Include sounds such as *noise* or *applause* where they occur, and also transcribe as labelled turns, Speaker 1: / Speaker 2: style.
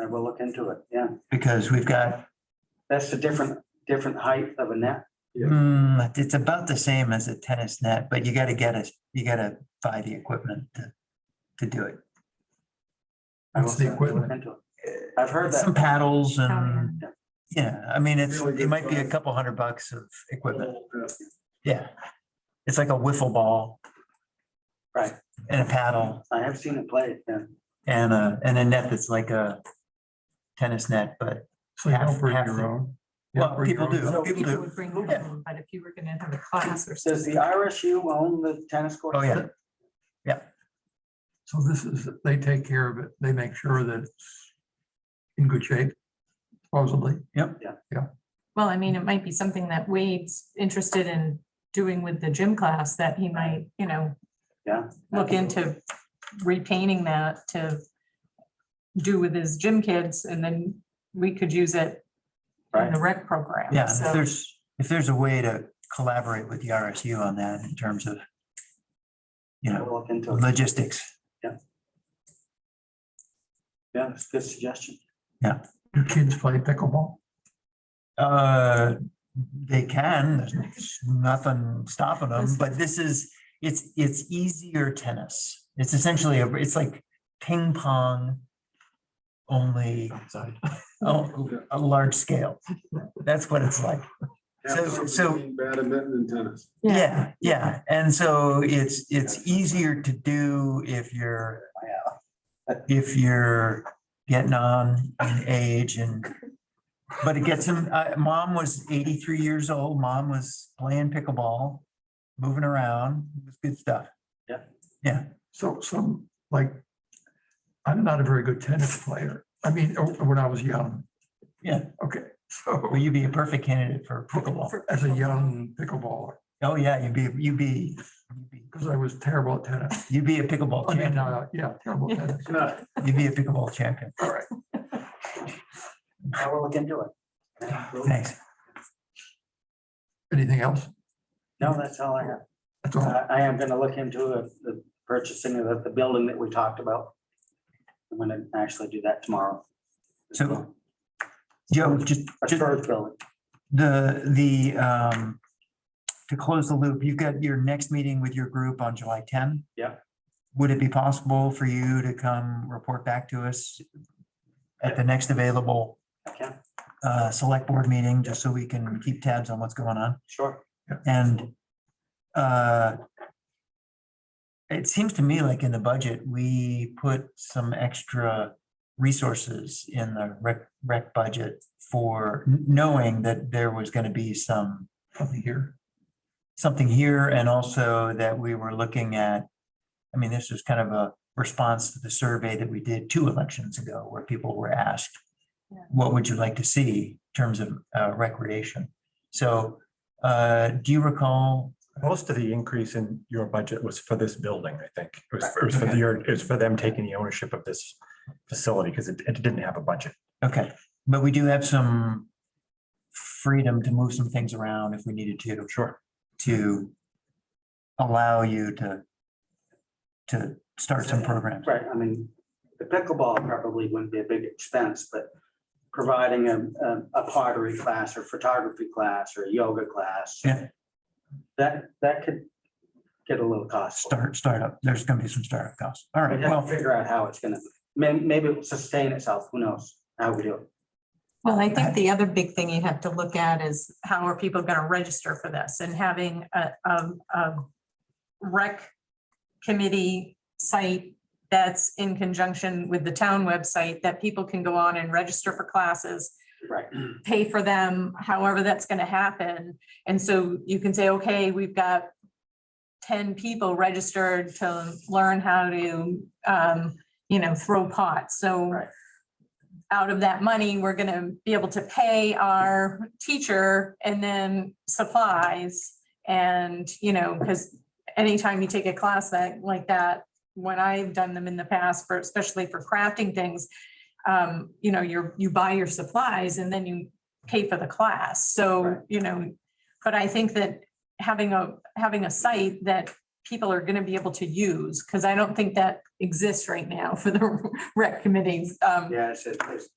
Speaker 1: I will look into it, yeah.
Speaker 2: because we've got,
Speaker 1: That's a different, different height of a net.
Speaker 3: Yeah.
Speaker 2: Hmm, it's about the same as a tennis net, but you gotta get us, you gotta buy the equipment to, to do it.
Speaker 1: I will
Speaker 3: What's the
Speaker 1: certainly look
Speaker 3: equipment?
Speaker 1: into it. I've heard that.
Speaker 2: Some paddles and,
Speaker 1: yeah.
Speaker 2: yeah, I mean, it's,
Speaker 3: Really
Speaker 2: it
Speaker 3: good
Speaker 2: might be a
Speaker 3: size.
Speaker 2: couple hundred bucks of equipment, yeah. It's like a wiffle ball.
Speaker 1: Right.
Speaker 2: And a paddle
Speaker 1: I have seen it played, yeah.
Speaker 2: and a, and a net that's like a tennis net, but,
Speaker 3: So you
Speaker 2: Half-
Speaker 3: don't bring
Speaker 2: half the-
Speaker 3: your own. You don't
Speaker 2: well,
Speaker 3: bring
Speaker 2: people
Speaker 3: your
Speaker 2: do,
Speaker 3: own?
Speaker 2: people
Speaker 4: People
Speaker 2: do.
Speaker 4: would bring
Speaker 2: Yeah.
Speaker 4: home, but if you were gonna have a class or
Speaker 1: Does the
Speaker 4: something,
Speaker 1: RSU own the tennis court?
Speaker 2: Oh, yeah,
Speaker 3: So this is, they take care of it. They make sure that it's in good shape, supposedly.
Speaker 4: well, I mean, it might be something that Wade's interested in doing with the gym class that he might, you know,
Speaker 1: Yeah.
Speaker 4: look into repainting that to do with his gym kids and then we could use it in
Speaker 1: Right.
Speaker 4: the rec program.
Speaker 2: yeah, and if
Speaker 4: So
Speaker 2: there's, if there's a way to collaborate with the RSU on that in terms of, you
Speaker 1: I
Speaker 2: know,
Speaker 1: will look into it.
Speaker 2: logistics.
Speaker 1: Yeah, it's a good suggestion.
Speaker 3: Do kids play pickleball?
Speaker 2: Uh, they can, there's nothing stopping them, but this is, it's, it's easier tennis. It's essentially, a it's like ping pong only,
Speaker 3: Outside.
Speaker 2: oh, a large scale. That's what it's like. So-
Speaker 5: Half
Speaker 2: so-
Speaker 5: between Badminton and tennis.
Speaker 2: Yeah, yeah. And so it's, it's easier to do if you're, if you're getting on in age and, but it gets him, uh, mom was eighty-three years old. Mom was playing pickleball, moving around. It was good stuff.
Speaker 3: So some, like, I'm not a very good tennis player. I mean, o- when I was young.
Speaker 2: Yeah.
Speaker 3: Okay, so
Speaker 2: Will you be a perfect candidate for pickleball?
Speaker 3: as a young pickleballer,
Speaker 2: Oh, yeah, you'd be, you'd be, you'd be-
Speaker 3: because I was terrible at tennis.
Speaker 2: you'd be a pickleball
Speaker 3: I mean,
Speaker 2: champion.
Speaker 3: uh, yeah, terrible at
Speaker 2: *laughs*
Speaker 3: tennis.
Speaker 2: You'd be a pickleball champion.
Speaker 3: All right.
Speaker 1: I will look into it. Yeah, cool.
Speaker 2: Thanks.
Speaker 3: Anything else?
Speaker 1: No, that's all I have.
Speaker 3: That's all.
Speaker 1: I I am gonna look into the- the purchasing of the building that we talked about. I'm gonna actually do that tomorrow.
Speaker 2: So- Joe, just,
Speaker 1: A
Speaker 2: just.
Speaker 1: third building,
Speaker 2: The, the, um, to close the loop, you've got your next meeting with your group on July ten.
Speaker 1: Yeah.
Speaker 2: Would it be possible for you to come report back to us at the next available,
Speaker 1: okay,
Speaker 2: uh, select board meeting, just so we can keep tabs on what's going on?
Speaker 1: sure.
Speaker 2: And, uh, it seems to me like in the budget, we put some extra resources in the rec, rec budget for n- knowing that there was gonna be some,
Speaker 3: Nothing here.
Speaker 2: something here and also that we were looking at. I mean, this was kind of a response to the survey that we did two elections ago where people were asked,
Speaker 4: Yeah.
Speaker 2: what would you like to see in terms of uh, recreation? So, uh, do you recall
Speaker 6: Most of the increase in your budget was for this building, I think. It was, it was for your, it was for them taking the ownership of this facility because it, it didn't have a budget.
Speaker 2: Okay, but we do have some freedom to move some things around if we needed to,
Speaker 6: Sure.
Speaker 2: to allow you to, to start some programs.
Speaker 1: Right, I mean, the pickleball probably wouldn't be a big expense, but providing a, a- a pottery class or photography class or yoga class.
Speaker 2: Yeah.
Speaker 1: That, that could get a little costly.
Speaker 2: Start, startup, there's gonna be some startup costs. All right,
Speaker 1: We have to
Speaker 2: well,
Speaker 1: figure out how it's gonna, may, maybe it'll sustain itself, who knows, how we do it.
Speaker 4: Well, I think the other big thing you have to look at is how are people gonna register for this and having a, a, a rec committee site that's in conjunction with the town website that people can go on and register for classes,
Speaker 1: Right,
Speaker 4: pay for them, however that's gonna happen. And so you can say, okay, we've got ten people registered to learn how to, um, you know, throw pots. So
Speaker 1: Right.
Speaker 4: out of that money, we're gonna be able to pay our teacher and then supplies. And, you know, because anytime you take a class that, like that, when I've done them in the past for, especially for crafting things, um, you know, you're, you buy your supplies and then you pay for the class.
Speaker 1: Right.
Speaker 4: So, you know, but I think that having a, having a site that people are gonna be able to use, because I don't think that exists right now for the *laughs* rec committees. Um,
Speaker 1: yeah, it's, it's